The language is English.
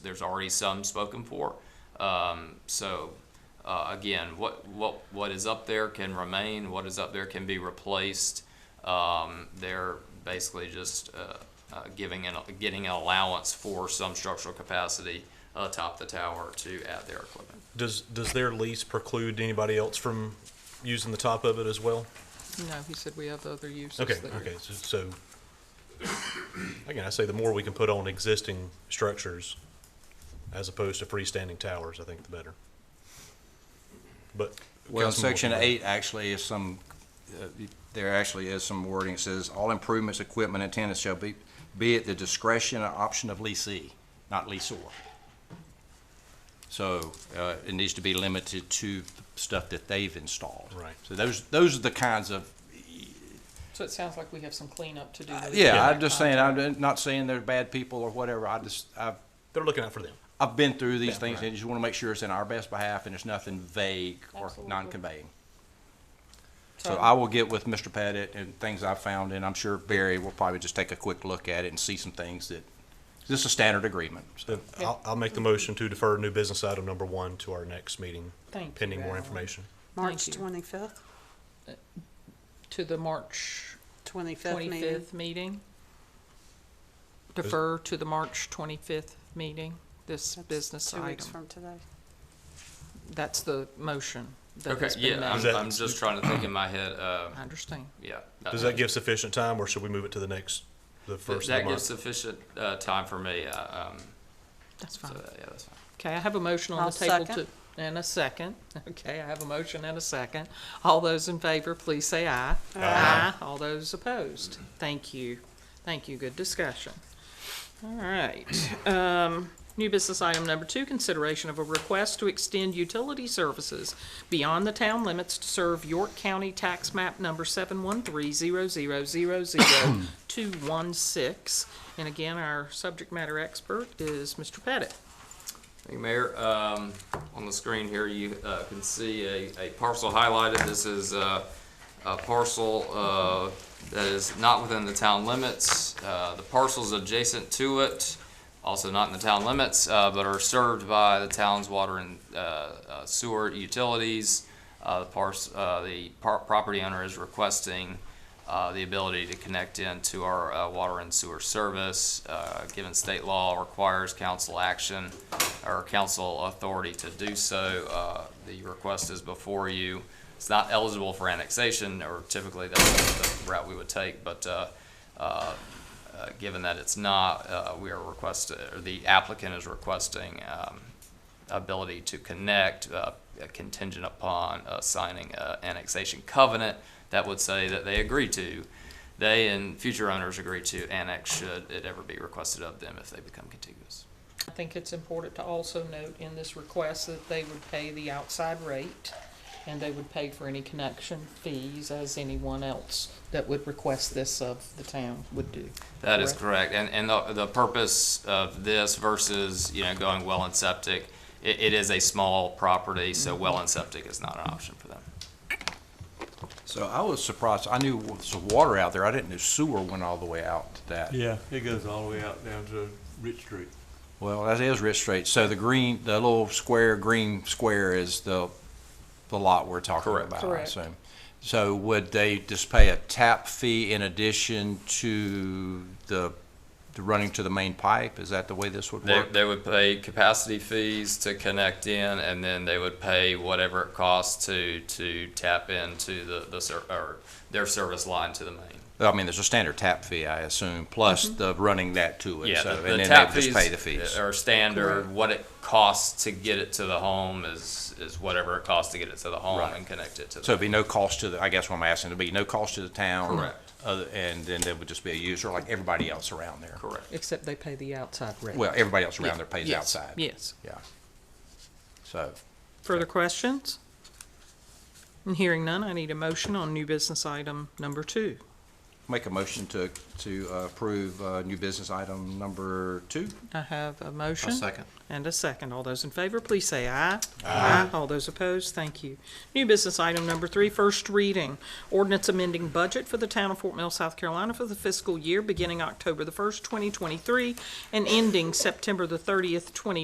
there's already some spoken for. Um, so, uh, again, what, what, what is up there can remain, what is up there can be replaced. Um, they're basically just, uh, uh, giving an, getting an allowance for some structural capacity atop the tower to add their equipment. Does, does their lease preclude anybody else from using the top of it as well? No, he said we have other uses Okay, there. okay, so, so, again, I say the more we can put on existing structures as opposed to freestanding towers, I think the better. But. Well, Councilman section Wilson, eight actually is some, uh, there actually is some wording. It says, "All improvements, equipment, and tenants shall be, be at the discretion or option of leasee, not leasor." So uh, it needs to be limited to stuff that they've installed. Right. So those, those are the kinds of, So it sounds like we have some cleanup to do. with the Uh, yeah, other I'm just saying, contract. I'm not saying they're bad people or whatever. I just, I've, They're looking out for them. I've been through these things and just want to make sure it's in our best behalf and it's nothing vague or Absolutely. non-conveying. So So I will get with Mr. Pettit and things I've found, and I'm sure Barry will probably just take a quick look at it and see some things that, this is a standard agreement. so. Then I'll, I'll make the motion to defer new business item number one to our next meeting, Thank you, pending more Alan. information. March you. 25th, To the March 25th meeting. twenty-fifth meeting. Defer to the March twenty-fifth meeting, this That's business Two weeks item. from today. That's the motion that Okay, has been yeah, Is I'm, made. that- I'm just trying to think in my head, uh, I understand. yeah. Does that give sufficient time, or should we move it to the next, the first of the Uh, That gives month? sufficient, uh, time for me, uh, um, That's so, fine. yeah, that's fine. Okay, I have a motion on I'll the table to, second. and a second. Okay, I have a motion and a second. All those in favor, please say aye. Aye. All those opposed? Thank you. Thank you. Good discussion. All right. Um, new business item number two, consideration of a request to extend utility services beyond the town limits to serve York County Tax Map number seven one three zero zero zero zero two one six. And again, our subject matter expert is Mr. Pettit. Thank you, Mayor. Um, on the screen here, you, uh, can see a, a parcel highlighted. This is, uh, a parcel, uh, that is not within the town limits. Uh, the parcels adjacent to it, also not in the town limits, uh, but are served by the town's water and, uh, uh, sewer utilities. Uh, the parcel, uh, the par- property owner is requesting, uh, the ability to connect into our, uh, water and sewer service. Uh, given state law requires council action or council authority to do so. Uh, The request is before you. It's not eligible for annexation, or typically that's the route we would take, but uh, uh, uh, given that it's not, uh, we are requesting, or the applicant is requesting um, ability to connect uh, contingent upon uh, signing an annexation covenant that would say that they agree to, they and future owners agree to annex should it ever be requested of them if they become contiguous. I think it's important to also note in this request that they would pay the outside rate, and they would pay for any connection fees as anyone else that would request this of the town would do. That is correct, and, and the, the purpose of this versus, you know, going well and septic, it, it is a small property, so well and septic is not an option for them. So I was surprised, I knew there was water out there, I didn't know sewer went all the way out to that. Yeah, it goes all the way out down to Rich Street. Well, that is Rich Street, so the green, the little square, green square is the, the lot we're talking Correct. about, I Correct. assume. So would they just pay a tap fee in addition to the, the running to the main pipe? Is that the way this would They, work? they would pay capacity fees to connect in, and then they would pay whatever it costs to, to tap into the, the ser, or their service line to the main. I mean, there's a standard tap fee, I assume, plus the running that to it, Yeah, so, the- the and then tap they just pay the fees uh, fees. Are standard, what it costs to get it to the home is, is whatever it costs to get it to the home Right. and connect it to the. So it'd be no cost to the, I guess what I'm asking, it'd be no cost to the town. Correct. Other, and then there would just be a user like everybody else around there. Correct. Except they pay the outside rate. Well, everybody else around there pays Yes, outside. Yes. Yeah. So, Further questions? And hearing none, I need a motion on new business item number two. Make a motion to, to uh, approve uh, new business item number two. I have a motion. second. And a second. All those in favor, please say aye. Aye. All those opposed, thank you. New business item number three, first reading. Ordinance amending budget for the town of Fort Mill, South Carolina for the fiscal year beginning October the first, twenty twenty-three, and ending September the thirtieth, twenty